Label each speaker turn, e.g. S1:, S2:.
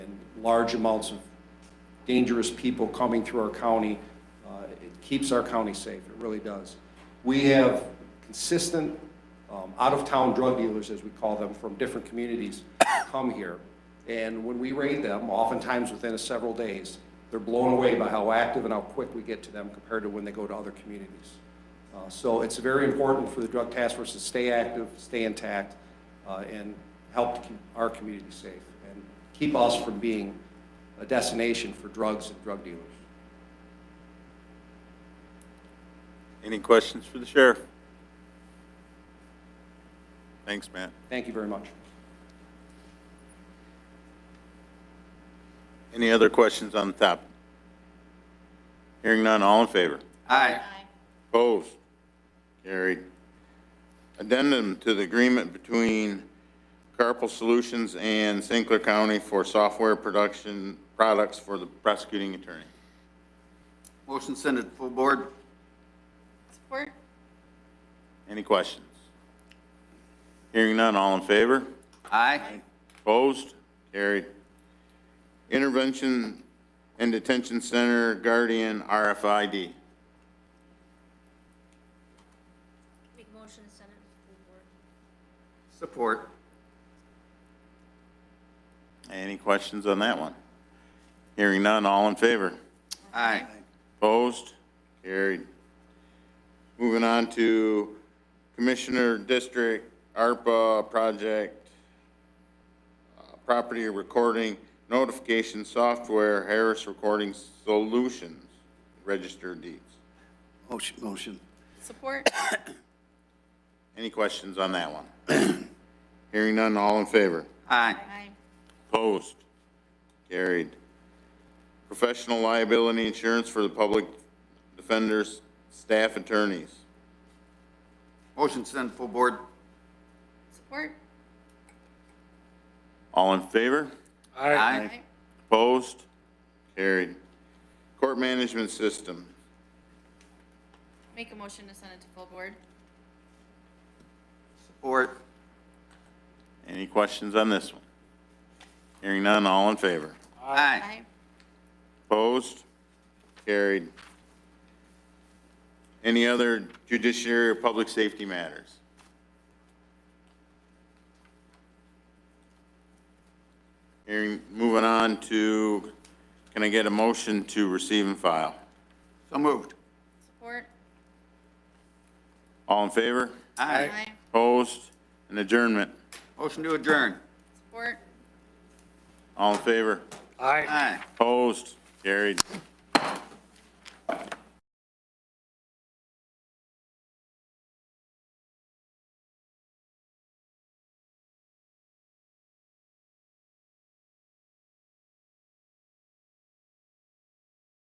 S1: large amounts of dangerous people coming through our county. Uh, It keeps our county safe, it really does. We have consistent um, out-of-town drug dealers, as we call them, from different communities come here. And when we raid them, oftentimes within several days, they're blown away by how active and how quick we get to them compared to when they go to other communities. Uh, So it's very important for the Drug Task Force to stay active, stay intact, uh, and help to keep our community safe and keep us from being a destination for drugs and drug dealers.
S2: Any questions for the sheriff? Thanks, Matt.
S1: Thank you very much.
S2: Any other questions on the topic? Hearing none, all in favor?
S3: Aye.
S2: Opposed? Carried. Addendum to the agreement between Carpal Solutions and St. Clair County for software production products for the prosecuting attorney.
S3: Motion send it full board.
S4: Support?
S2: Any questions? Hearing none, all in favor?
S3: Aye.
S2: Opposed? Carried. Intervention and Detention Center Guardian RFID.
S5: Make motion to send it to the board.
S3: Support.
S2: Any questions on that one? Hearing none, all in favor?
S3: Aye.
S2: Opposed? Carried. Moving on to Commissioner District ARPA Project uh, Property Recording Notification Software Harris Recording Solutions Register of Deeds.
S3: Motion, motion.
S4: Support?
S2: Any questions on that one? Hearing none, all in favor?
S3: Aye.
S4: Aye.
S2: Opposed? Carried. Professional liability insurance for the public defenders, staff attorneys.
S3: Motion send full board.
S4: Support?
S2: All in favor?
S3: Aye.
S2: Opposed? Carried. Court management system.
S4: Make a motion to send it to full board.
S3: Support.
S2: Any questions on this one? Hearing none, all in favor?
S3: Aye.
S2: Opposed? Carried. Any other judiciary or public safety matters? Hearing, moving on to, can I get a motion to receive and file?
S3: So moved.
S4: Support?
S2: All in favor?
S3: Aye.
S2: Opposed? An adjournment?
S3: Motion to adjourn.
S4: Support?
S2: All in favor?
S3: Aye.
S2: Opposed? Carried.